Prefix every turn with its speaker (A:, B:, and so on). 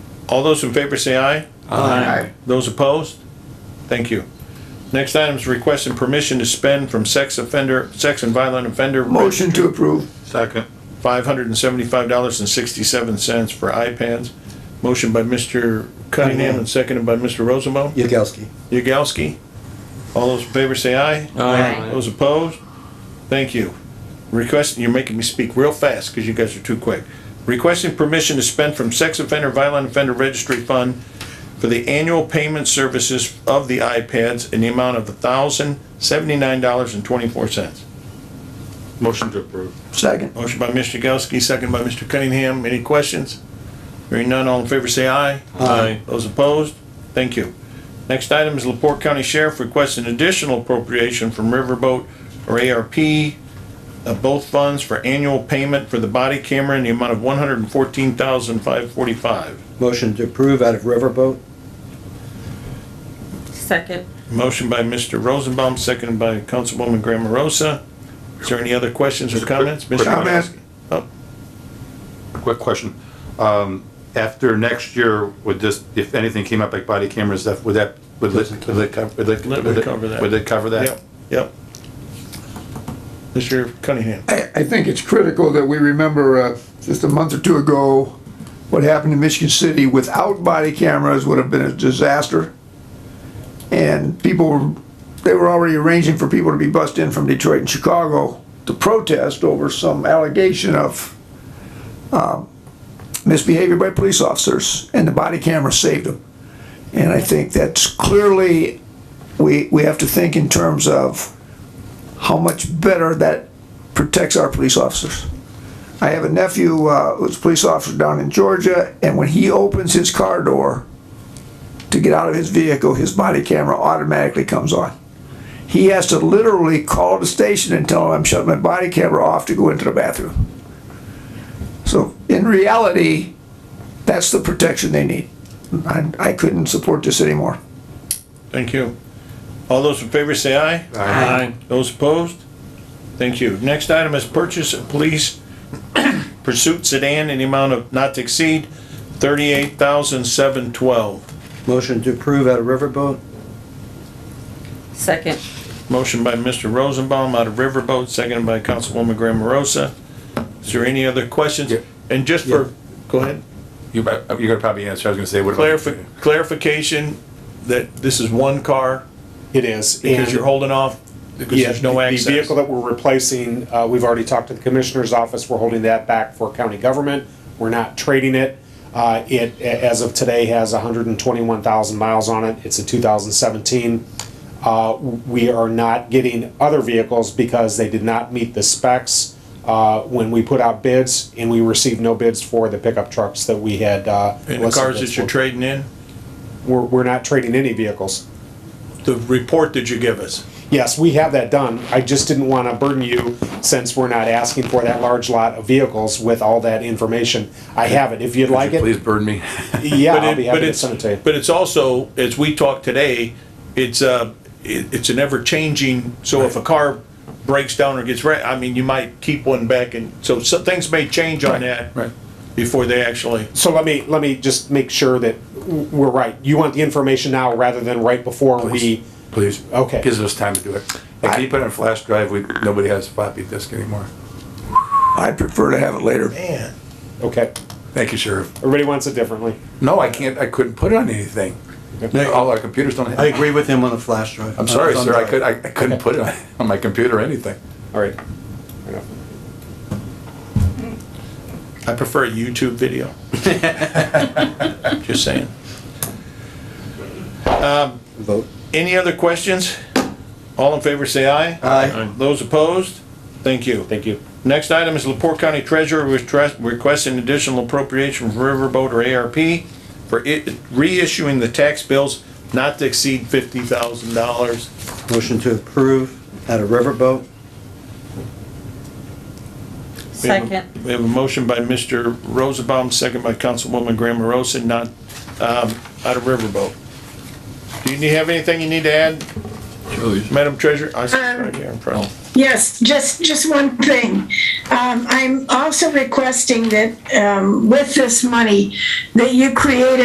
A: All those in favor say aye.
B: Aye.
A: Those opposed? Thank you. Next item is request and permission to spend from sex offender, sex and violent offender.
B: Motion to approve.
C: Second.
A: Five hundred and seventy-five dollars and sixty-seven cents for iPads. Motion by Mr. Cunningham and seconded by Mr. Rosenbaum.
B: Yagowski.
A: Yagowski. All those in favor say aye.
D: Aye.
A: Those opposed? Thank you. Request, you're making me speak real fast because you guys are too quick. Requesting permission to spend from Sex Offender Violent Offender Registry Fund for the annual payment services of the iPads in the amount of thousand seventy-nine dollars and twenty-four cents.
C: Motion to approve.
B: Second.
A: Motion by Mr. Yagowski, second by Mr. Cunningham. Any questions? Hearing none, all in favor say aye.
C: Aye.
A: Those opposed? Thank you. Next item is Laporte County Sheriff requests an additional appropriation from Riverboat or ARP of uh, both funds for annual payment for the body camera in the amount of one hundred and fourteen thousand five forty-five.
E: Motion to approve out of Riverboat.
D: Second.
A: Motion by Mr. Rosenbaum, seconded by Councilwoman Graham Rosa. Is there any other questions or comments? Mr.
C: Comment.
A: Yagowski? Oh,
C: Quick question. Um, after next year, would this, if anything came up like body cameras, that, would that, would it, would it cover, would it?
A: Let me cover that.
C: Would it cover that?
A: Yep, yep. Mr. Cunningham.
B: I, I think it's critical that we remember, uh, just a month or two ago, what happened in Michigan City without body cameras would have been a disaster. And people, were- they were already arranging for people to be bussed in from Detroit and Chicago to protest over some allegation of, um, misbehavior by police officers, and the body camera saved them. And I think that's clearly, we, we have to think in terms of how much better that protects our police officers. I have a nephew uh, who's a police officer down in Georgia, and when he opens his car door to get out of his vehicle, his body camera automatically comes on. He has to literally call the station and tell them, I'm shutting my body camera off to go into the bathroom. So in reality, that's the protection they need. I, I couldn't support this anymore.
A: Thank you. All those in favor say aye.
D: Aye.
A: Those opposed? Thank you. Next item is purchase of police pursuit sedan in the amount of not to exceed thirty-eight thousand seven twelve.
E: Motion to approve out of Riverboat.
D: Second.
A: Motion by Mr. Rosenbaum out of Riverboat, seconded by Councilwoman Graham Rosa. Is there any other questions?
C: Yeah.
A: And just for, go ahead,
C: You, bet- you're gonna probably answer, I was gonna say, what about?
A: clarif- clarification that this is one car
F: It is.
A: because
F: and-
A: you're holding off because
F: Yeah,
A: there's no
F: the- The
A: access.
F: vehicle that we're replacing, uh, we've already talked to the commissioner's office, we're holding that back for county government. We're not trading it. Uh, it, a- as of today, has hundred and twenty-one thousand miles on it. It's a two thousand seventeen. Uh, we are not getting other vehicles because they did not meet the specs, uh, when we put out bids, and we received no bids for the pickup trucks that we had, uh.
A: And the
F: listed
A: cars
F: bids
A: that you're
F: for.
A: trading in,
F: We're, we're not trading any vehicles.
A: the report that you give us.
F: Yes, we have that done. I just didn't want to burden you since we're not asking for that large lot of vehicles with all that information. I have it. If you'd like
C: Could you Please
F: it,
C: burn me.
F: yeah,
A: But
F: I'll
A: it-
F: be
A: but
F: happy to
A: it's-
F: send it to you.
A: But it's also, as we talk today, it's a, it's an ever-changing, so if a car breaks down or gets wrecked, I mean, you might keep one back and, so some things may change on that.
C: right.
A: Before they actually,
F: So let me, let me just make sure that w- we're right. You want the information now rather than right before we,
C: Please.
F: Okay.
C: Gives us time to do it. And can you put it on flash drive? We, nobody has a floppy disk anymore.
B: I prefer to have it later.
A: man,
F: okay.
C: Thank you, Sheriff.
F: Everybody wants it differently.
C: No, I can't, I couldn't put it on anything. All our computers don't have.
E: I agree with him on the flash drive.
C: I'm sorry, sir, I could, I I couldn't put it on- on my computer or anything.
F: All right.
A: I prefer a YouTube video. Just saying. Um,
E: Vote.
A: Any other questions? All in favor, say aye.
E: Aye.
A: Those opposed? Thank you.
F: Thank you.
A: Next item is Laporte County Treasurer request- requesting additional appropriation from Riverboat or ARP for i- reissuing the tax bills not to exceed fifty thousand dollars.
E: Motion to approve out of Riverboat.
D: Second.
A: We have a motion by Mr. Rosenbaum, second by Councilwoman Graham Rosa, not, um, out of Riverboat. Do you need- have anything you need to add, Madam Treasurer? I see it's right here in front.
G: Yes, just, just one thing. Um, I'm also requesting that, um, with this money, that you create